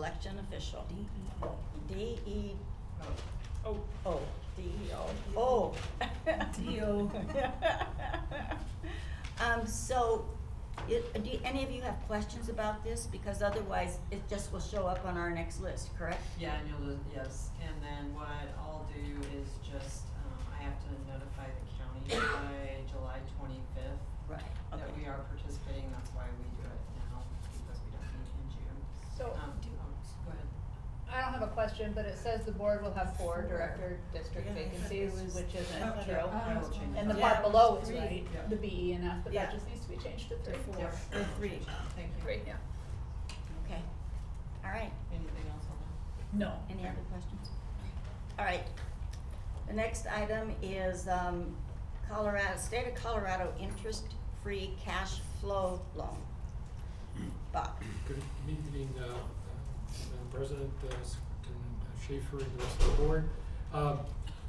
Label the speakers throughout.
Speaker 1: election official. D E
Speaker 2: Oh,
Speaker 1: O, D E O, O.
Speaker 3: D O.
Speaker 1: Um, so, it, do any of you have questions about this? Because otherwise, it just will show up on our next list, correct?
Speaker 4: Yeah, and you'll, lose- yes, and then what I'll do is just, um, I have to notify the county by July twenty-fifth
Speaker 1: Right, okay.
Speaker 4: that we are participating, that's why we do it now, because we don't meet in June.
Speaker 2: So,
Speaker 4: Um,
Speaker 2: do-
Speaker 4: um, Go ahead.
Speaker 2: I don't have a question, but it says the board will have four director district
Speaker 3: Yeah, I thought
Speaker 2: vacancies,
Speaker 3: it was-
Speaker 2: which
Speaker 3: I
Speaker 2: isn't
Speaker 3: thought
Speaker 2: true.
Speaker 3: it-
Speaker 4: I will
Speaker 3: Oh.
Speaker 4: change
Speaker 2: And the
Speaker 4: that.
Speaker 3: Yeah,
Speaker 2: part
Speaker 3: it was
Speaker 2: below is
Speaker 3: three.
Speaker 2: right,
Speaker 4: Yeah.
Speaker 2: the B E and F, but that
Speaker 3: Yeah.
Speaker 2: just needs to be changed to three.
Speaker 3: four.
Speaker 4: Yeah.
Speaker 3: Or three.
Speaker 4: Thank you.
Speaker 2: Great, yeah.
Speaker 1: Okay, all right.
Speaker 4: Anything else on that?
Speaker 3: No.
Speaker 1: Any other questions? All right. The next item is um, Colorado, State of Colorado interest-free cash flow loan. Bob,
Speaker 5: Good evening, uh, uh, Madam President, uh, S- and Schaefer, and the rest of the board. Uh,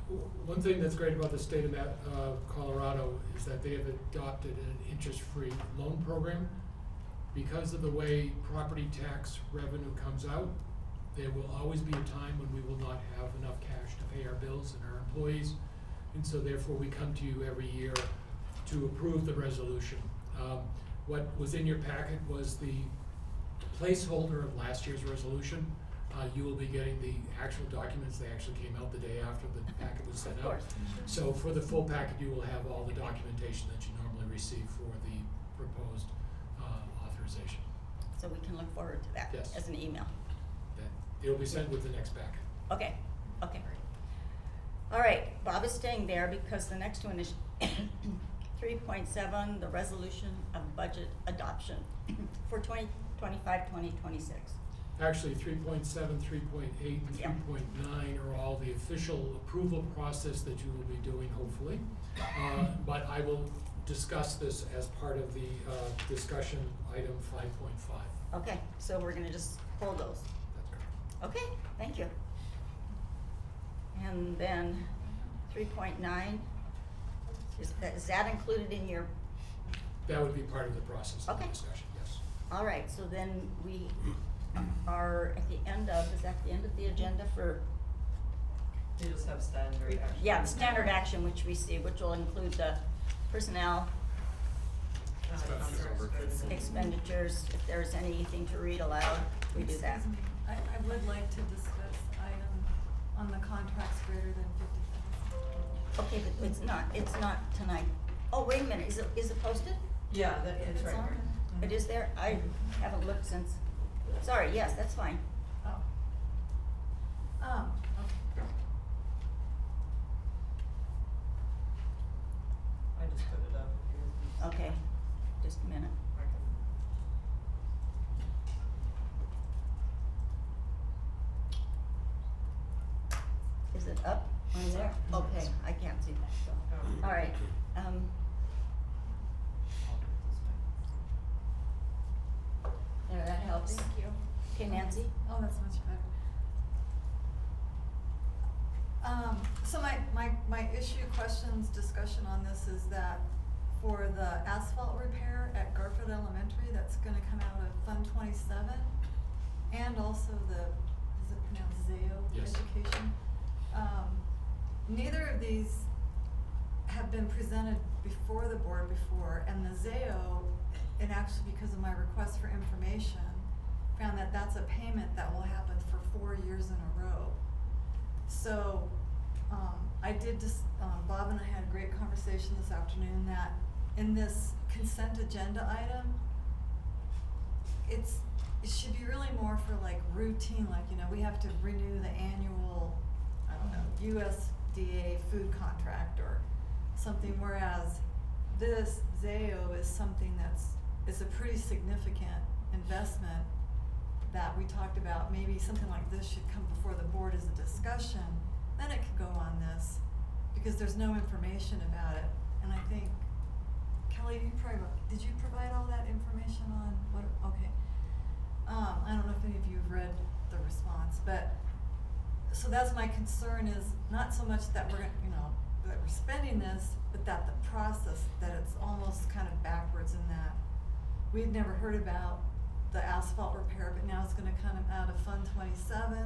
Speaker 5: w- One thing that's great about the state of Ma- uh, Colorado is that they have adopted an interest-free loan program. Because of the way property tax revenue comes out, there will always be a time when we will not have enough cash to pay our bills and our employees. And so therefore, we come to you every year to approve the resolution. Um, What was in your packet was the placeholder of last year's resolution. Uh, you will be getting the actual documents, they actually came out the day after the packet was sent out.
Speaker 1: of course.
Speaker 5: So for the full packet, you will have all the documentation that you normally receive for the proposed, uh, authorization.
Speaker 1: So we can look forward to that
Speaker 5: Yes.
Speaker 1: as an email.
Speaker 5: That, it'll be sent with the next packet.
Speaker 1: Okay, okay. All right, Bob is staying there because the next one is three point seven, the resolution of budget adoption for 2025-2026.
Speaker 5: Actually, three point seven, three point eight, and
Speaker 1: Yeah.
Speaker 5: three point nine are all the official approval process that you will be doing, hopefully. Uh, but I will discuss this as part of the, uh, discussion item five point five.
Speaker 1: Okay, so we're gonna just hold those.
Speaker 5: That's correct.
Speaker 1: Okay, thank you. And then three point nine, is that, is that included in your,
Speaker 5: That would be part of the process of the
Speaker 1: Okay.
Speaker 5: discussion, yes.
Speaker 1: all right, so then we are at the end of, is that the end of the agenda for,
Speaker 4: You just have standard action.
Speaker 1: yeah, the standard action which we see, which will include the personnel
Speaker 4: Uh,
Speaker 5: Expenses
Speaker 4: under
Speaker 5: over
Speaker 4: expenses.
Speaker 1: expenditures, if there's anything to read aloud, we do that.
Speaker 6: Excuse me, I, I would like to discuss item on the contracts greater than fifty thousand.
Speaker 1: Okay, but it's not, it's not tonight. Oh, wait a minute, is it, is it posted?
Speaker 4: Yeah, that, it's
Speaker 6: It's
Speaker 4: right
Speaker 6: on
Speaker 4: here. Mhm.
Speaker 1: It is there? I haven't looked since. Sorry, yes, that's fine.
Speaker 6: Oh. Um, okay.
Speaker 4: I just put it up. if you guys need-
Speaker 1: Okay, just a minute.
Speaker 4: I can-
Speaker 1: Is it up on there?
Speaker 4: Mhm.
Speaker 1: Okay, I can't see that, so,
Speaker 4: oh,
Speaker 1: all right, um,
Speaker 4: I'll do it this way.
Speaker 1: there, that helps.
Speaker 6: Thank you.
Speaker 1: Okay, Nancy?
Speaker 6: Oh, that's much better. Um, so my, my, my issue, questions, discussion on this is that for the asphalt repair at Garfield Elementary, that's gonna come out of Fund twenty-seven. And also the, is it pronounced Zayo
Speaker 5: Yes.
Speaker 6: Education? Um, neither of these have been presented before the board before, and the ZAO, and actually because of my request for information, found that that's a payment that will happen for four years in a row. So, um, I did just, um, Bob and I had a great conversation this afternoon that in this consent agenda item, it's, it should be really more for like routine, like, you know, we have to renew the annual, I don't know, USDA food contract or something, whereas this ZAO is something that's, is a pretty significant investment that we talked about, maybe something like this should come before the board as a discussion, then it could go on this, because there's no information about it, and I think, Kelly, you probably, did you provide all that information on what, okay. Um, I don't know if any of you have read the response, but, so that's my concern is not so much that we're, gonna- you know, that we're spending this, but that the process, that it's almost kind of backwards in that we'd never heard about the asphalt repair, but now it's gonna come out of Fund twenty-seven.